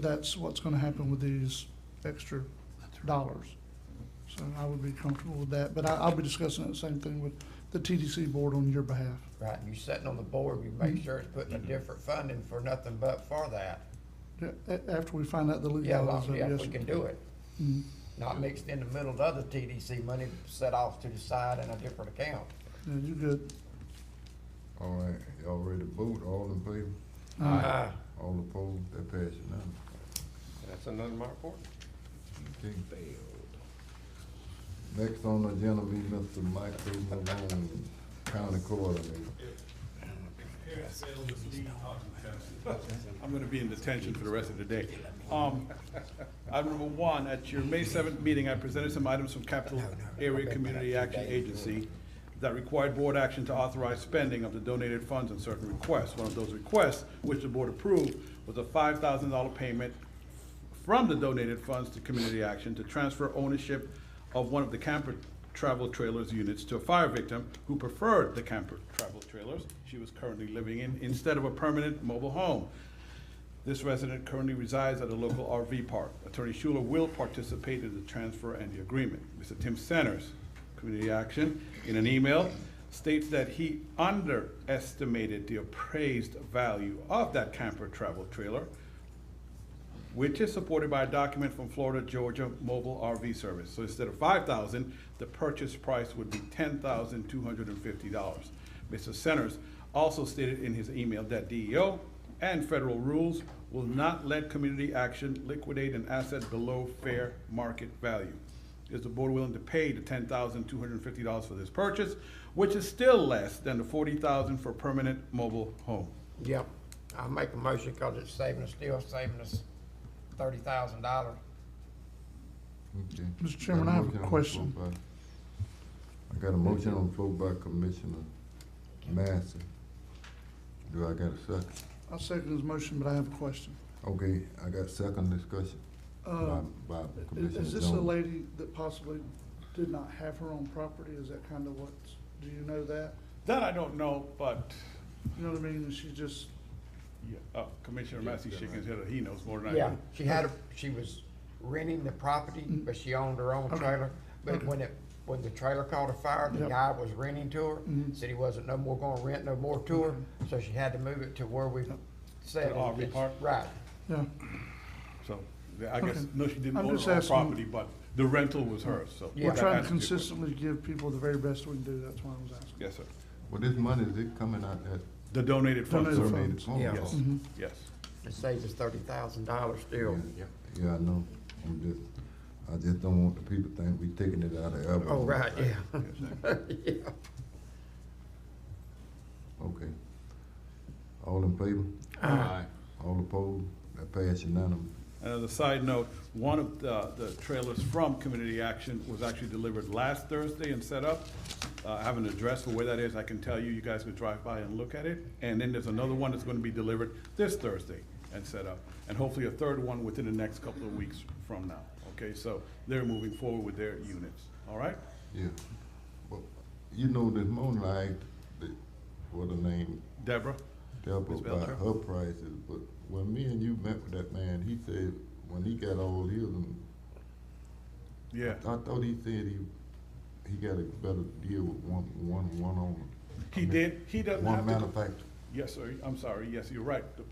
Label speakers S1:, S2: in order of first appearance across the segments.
S1: that's what's gonna happen with these extra dollars. So I would be comfortable with that, but I, I'll be discussing that same thing with the TDC board on your behalf.
S2: Right, and you're sitting on the board, you make sure it's putting a different funding for nothing but for that.
S1: Yeah, a- after we find out the
S2: Yeah,
S1: legalities
S2: well,
S1: of it,
S2: yeah,
S1: yes.
S2: we can do it.
S1: Mhm.
S2: Not mixed in the middle of the other TDC money set off to the side in a different account.
S1: Yeah, you good.
S3: All right, y'all ready to vote, all in favor,
S1: Uh,
S2: Uh,
S3: all opposed, that passes now.
S4: That's another mark for it.
S3: Okay. Next on the agenda be Mr. Michael Malone, County Coordinator.
S5: I'm gonna be in detention for the rest of the day. Um, Item number one, at your May seventh meeting, I presented some items from Capital Area Community Action Agency that required board action to authorize spending of the donated funds on certain requests. One of those requests, which the board approved, was a five thousand dollar payment from the donated funds to community action to transfer ownership of one of the camper travel trailers units to a fire victim who preferred the camper travel trailers she was currently living in instead of a permanent mobile home. This resident currently resides at a local RV park. Attorney Schuler will participate in the transfer and the agreement. Mr. Tim Centers, Community Action, in an email, states that he underestimated the appraised value of that camper travel trailer, which is supported by a document from Florida Georgia Mobile RV Service. So instead of five thousand, the purchase price would be ten thousand two hundred and fifty dollars. Mr. Centers also stated in his email that DEO and federal rules will not let community action liquidate an asset below fair market value. Is the board willing to pay the ten thousand two hundred and fifty dollars for this purchase, which is still less than the forty thousand dollars for permanent mobile home?
S2: Yep, I make a motion because it's saving us, still saving us thirty thousand dollars.
S3: Okay.
S1: Mr. Chairman, I have a
S3: Got motion on the
S1: question.
S3: floor by- I got a motion on the floor by Commissioner Master. Do I got a second?
S1: I second his motion, but I have a question.
S3: Okay, I got second discussion by,
S1: Uh,
S3: by
S1: i-
S3: Commissioner
S1: is this a
S3: Jones.
S1: lady that possibly did not have her own property? Is that kind of what, do you know that?
S5: That I don't know, but
S1: You know what I mean? And She just,
S5: Yeah, uh, Commissioner Massey shaking his head, he knows more than I
S2: Yeah,
S5: do.
S2: she had, a she was renting the property, but she owned her own trailer. But when it, when the trailer caught a fire, the
S1: Yep.
S2: guy was renting to her, said he wasn't no more gonna rent no more to her, so she had to move it to where we said.
S5: To the RV
S2: it's-
S5: park?
S2: Right,
S1: yeah,
S5: So, yeah, I guess,
S1: Okay.
S5: no, she didn't
S1: I'm
S5: own
S1: just
S5: her own
S1: asking-
S5: property, but the rental was hers, so.
S2: Yeah.
S1: we're
S5: that
S1: trying to
S5: answers your question.
S1: consistently give people the very best we can do. That's why I was asking.
S5: Yes, sir.
S3: Well, this money, is it coming out that
S5: The donated funds,
S1: Donated
S5: sir.
S3: donated
S1: funds.
S3: fund?
S2: Yeah.
S5: Yes, yes.
S2: it saves us thirty thousand dollars still.
S3: Yeah, yeah, I know, I'm just, I just don't want the people to think we taking it out of Alabama.
S2: Oh, right, yeah. Yeah.
S3: Okay. All in favor?
S4: Aye.
S3: All opposed? That pass unanimous.
S5: And as a side note, one of the, the trailers from Community Action was actually delivered last Thursday and set up. Uh, I have an address for where that is, I can tell you, you guys can drive by and look at it. And then there's another one that's gonna be delivered this Thursday and set up. And hopefully a third one within the next couple of weeks from now, okay? So they're moving forward with their units, all right?
S3: Yeah. Well, you know, this morning I asked the, what her name,
S5: Deborah?
S3: Deborah,
S5: Ms.
S3: about
S5: Belcher?
S3: her prices, but when me and you met with that man, he said, when he got all his, and
S5: Yeah,
S3: I thought he said he, he got a better deal with one, one, one on.
S5: he did, he doesn't have
S3: One
S5: to.
S3: manufacturer.
S5: Yes, sir, I'm sorry, yes, you're right. The-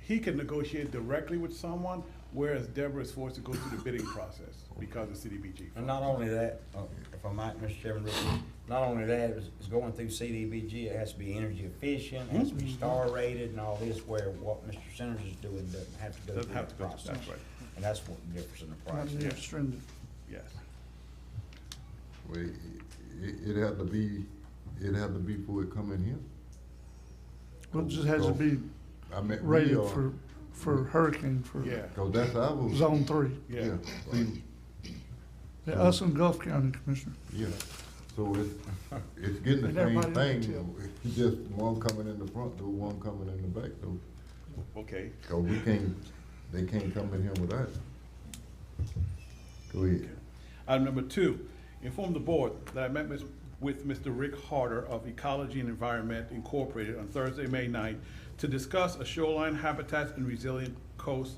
S5: He can negotiate directly with someone, whereas Deborah is forced to go through the bidding process because of CDBG.
S6: And not only that, uh, if I might, Mr. Chairman, real quick, not only that, it's, it's going through CDBG, it has to be energy efficient, it has to be star rated and all this, where what Mr. Centers is doing doesn't have to go
S5: Doesn't
S6: through
S5: have
S6: that
S5: to go,
S6: process.
S5: that's right,
S6: And that's what the difference in the
S1: Not
S6: price.
S1: an
S6: is.
S1: extended.
S5: yes.
S3: Well, it, it, it had to be, it had to be before it come in here.
S1: Well, it just has to be
S3: I mean, we
S1: rated
S3: are.
S1: for, for hurricane, for
S5: Yeah,
S3: Cause that's our.
S1: zone three.
S5: yeah.
S3: See,
S1: Yeah, Us and Gulf County Commissioner.
S3: yeah, so it's, it's getting
S1: And
S3: the same
S1: everybody in the
S3: thing, it's just one coming in the front door, one coming in the back door.
S5: Okay,
S3: Cause we can't, they can't come in here with us. Go ahead.
S5: Item number two, inform the board that I met mis- with Mr. Rick Harder of Ecology and Environment Incorporated on Thursday, May 9th, to discuss a shoreline habitat and resilient coast